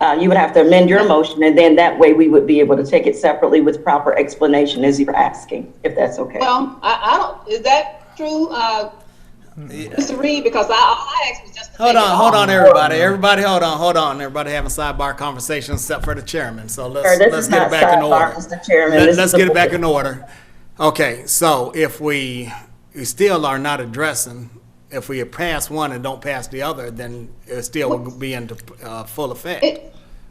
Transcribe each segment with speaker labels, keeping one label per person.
Speaker 1: Uh, you would have to amend your motion, and then that way we would be able to take it separately with proper explanation as you're asking, if that's okay.
Speaker 2: Well, um, I, I don't, is that true, uh, Mr. Reed? Because I, all I asked was just to
Speaker 3: Hold
Speaker 2: take it
Speaker 3: on, hold
Speaker 2: off.
Speaker 3: on, everybody. Everybody, hold on, hold on. Everybody having sidebar conversations except for the chairman. So
Speaker 1: Sir,
Speaker 3: let's,
Speaker 1: this
Speaker 3: let's
Speaker 1: is
Speaker 3: get
Speaker 1: not
Speaker 3: it back in
Speaker 1: sidebar,
Speaker 3: order.
Speaker 1: Mr. Chairman. This
Speaker 3: Let,
Speaker 1: is
Speaker 3: us
Speaker 1: the
Speaker 3: get it back
Speaker 1: board.
Speaker 3: in order. Okay, so if we, we still are not addressing, if we pass one and don't pass the other, then it still will be into, uh, full effect.
Speaker 2: It-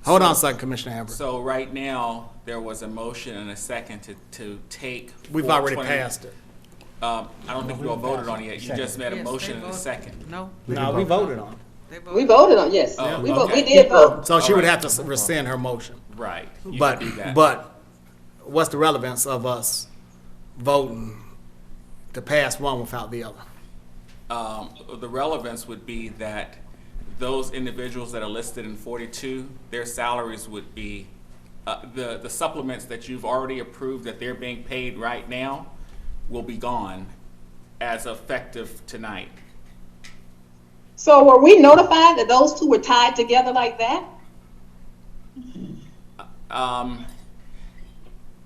Speaker 3: Hold on a second, Commissioner Amber.
Speaker 4: So right now, there was a motion and a second to, to take.
Speaker 3: We've already
Speaker 4: 420
Speaker 3: passed it.
Speaker 4: Um, I don't think you all voted on it yet. You just made a
Speaker 5: Yes,
Speaker 4: motion
Speaker 5: they
Speaker 4: and a
Speaker 5: voted.
Speaker 4: second.
Speaker 5: No,
Speaker 3: No, we voted on
Speaker 5: they
Speaker 2: We
Speaker 5: voted.
Speaker 2: voted on, yes,
Speaker 4: Oh,
Speaker 2: we vote, we
Speaker 4: okay.
Speaker 2: did vote.
Speaker 3: it. So she would
Speaker 4: Alright.
Speaker 3: have to rescind her motion.
Speaker 4: Right. You can
Speaker 3: But,
Speaker 4: do that.
Speaker 3: but what's the relevance of us voting to pass one without the other?
Speaker 4: Um, the relevance would be that those individuals that are listed in forty-two, their salaries would be, uh, the, the supplements that you've already approved that they're being paid right now will be gone as effective tonight.
Speaker 2: So were we notified that those two were tied together like that?
Speaker 4: Um,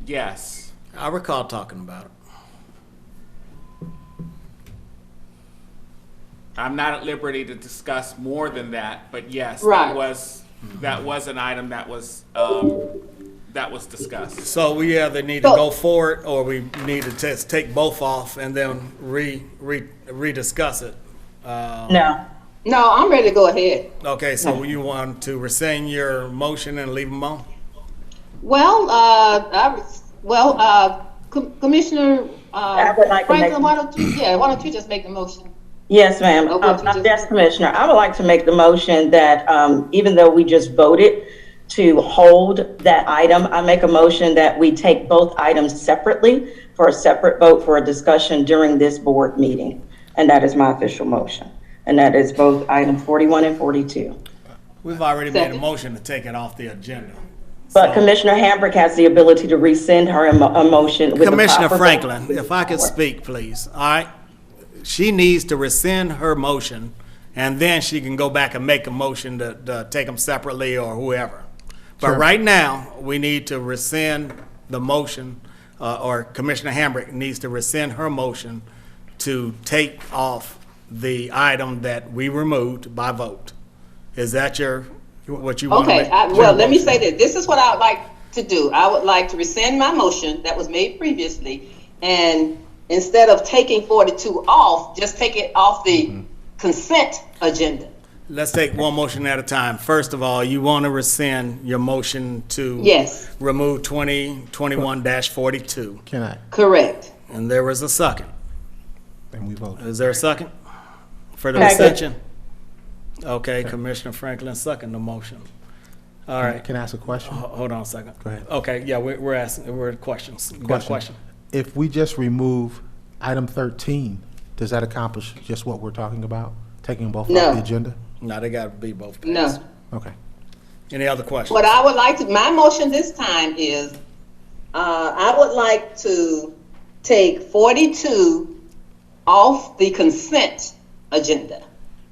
Speaker 4: yes.
Speaker 3: I recall talking about it.
Speaker 4: I'm not at liberty to discuss more than that, but yes,
Speaker 2: Right.
Speaker 4: that was, that was an item that was, um, that was discussed.
Speaker 3: So we either need to
Speaker 2: So-
Speaker 3: go forward or we need to just take both off and then re, re, rediscuss it.
Speaker 1: No,
Speaker 2: No, I'm ready to go ahead.
Speaker 3: Okay, so you want to rescind your motion and leave them on?
Speaker 2: Well, uh, I, was- well, uh, Com- Commissioner,
Speaker 1: I
Speaker 2: uh,
Speaker 1: would like to make-
Speaker 2: Franklin, why don't you, yeah, why don't you just make the motion?
Speaker 1: yes, ma'am.
Speaker 2: Oh, what
Speaker 1: Um,
Speaker 2: you just-
Speaker 1: Yes, Commissioner, I would like to make the motion that um, even though we just voted to hold that item, I make a motion that we take both items separately for a separate vote for a discussion during this board meeting. And that is my official motion. And that is both item 41 and 42.
Speaker 3: We've already made a
Speaker 2: Second.
Speaker 3: motion to take it off the agenda.
Speaker 1: But Commissioner Hambrick has the ability to rescind her emo- emotion with the
Speaker 3: Commissioner
Speaker 1: proper-
Speaker 3: Franklin, if I could speak, please, all right? She needs to rescind her motion, and then she can go back and make a motion to, to take them separately or whoever. But right now, we need to rescind the motion, uh, or Commissioner Hambrick needs to rescind her motion to take off the item that we removed by vote. Is that your, what you want to
Speaker 2: Okay,
Speaker 3: make?
Speaker 2: I, well, let me say that, this is what I would like to do. I would like to rescind my motion that was made previously, and instead of taking forty-two off, just take it off the consent agenda.
Speaker 3: Let's take one motion at a time. First of all, you want to rescind your motion to
Speaker 2: Yes.
Speaker 3: remove twenty twenty-one forty-two,
Speaker 6: Can I?
Speaker 2: Correct.
Speaker 3: and there was a second.
Speaker 6: And we vote.
Speaker 3: Is there a second for the
Speaker 1: Second.
Speaker 3: rescension? Okay, Commissioner Franklin second the motion. All right,
Speaker 6: Can I ask a question?
Speaker 3: ho- hold on a second.
Speaker 6: Go ahead.
Speaker 3: Okay, yeah, we're, we're asking, we're questions. Got a
Speaker 6: Question.
Speaker 3: question?
Speaker 6: If we just remove item thirteen, does that accomplish just what we're talking about? Taking both
Speaker 2: No.
Speaker 6: off the agenda?
Speaker 3: No, they gotta be both. passed.
Speaker 2: No.
Speaker 6: Okay.
Speaker 3: Any other questions?
Speaker 2: What I would like to, my motion this time is, uh, I would like to take forty-two off the consent agenda.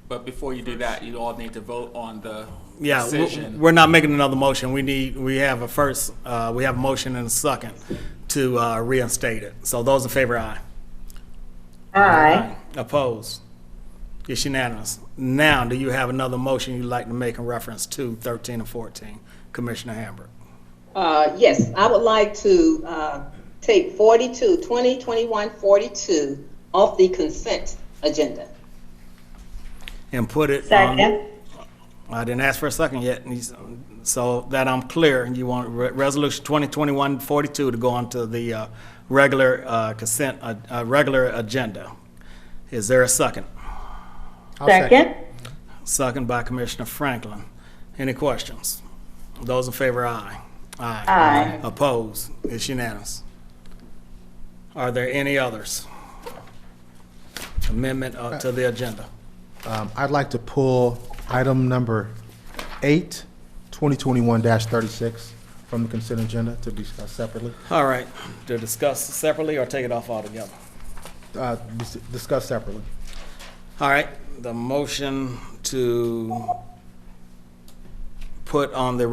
Speaker 4: But before you do that, you all need to vote on the
Speaker 3: Yeah, w-
Speaker 4: decision.
Speaker 3: we're not making another motion. We need, we have a first, uh, we have a motion and a second to, uh, reinstate it. So those in favor, aye. Um,
Speaker 1: Aye.
Speaker 3: Opposed? It's unanimous. Now, do you have another motion you'd like to make in reference to thirteen and fourteen, Commissioner Hamburg?
Speaker 2: Uh, yes, I would like to, uh, take 42, 20, 21, 42 off the consent agenda.
Speaker 3: And put it on.
Speaker 1: Second.
Speaker 3: I didn't ask for a second yet, and he's- so that I'm clear, you want Re- Resolution 2021-42 to go on to the uh, regular uh, consent, uh, uh, regular agenda. Is there a second?
Speaker 6: I'll
Speaker 1: Second?
Speaker 3: Second by Commissioner Franklin. Any questions? Those in favor, aye.
Speaker 1: Aye.
Speaker 3: Opposed? It's unanimous. Are there any others? Amendment uh, to the agenda.
Speaker 6: Um, I'd like to pull item number eight, twenty twenty-one thirty-six from the consent agenda to be discussed separately,
Speaker 3: All right, to discuss separately or take it off altogether?
Speaker 6: uh, dis- discussed separately.
Speaker 3: All right, the motion to put on the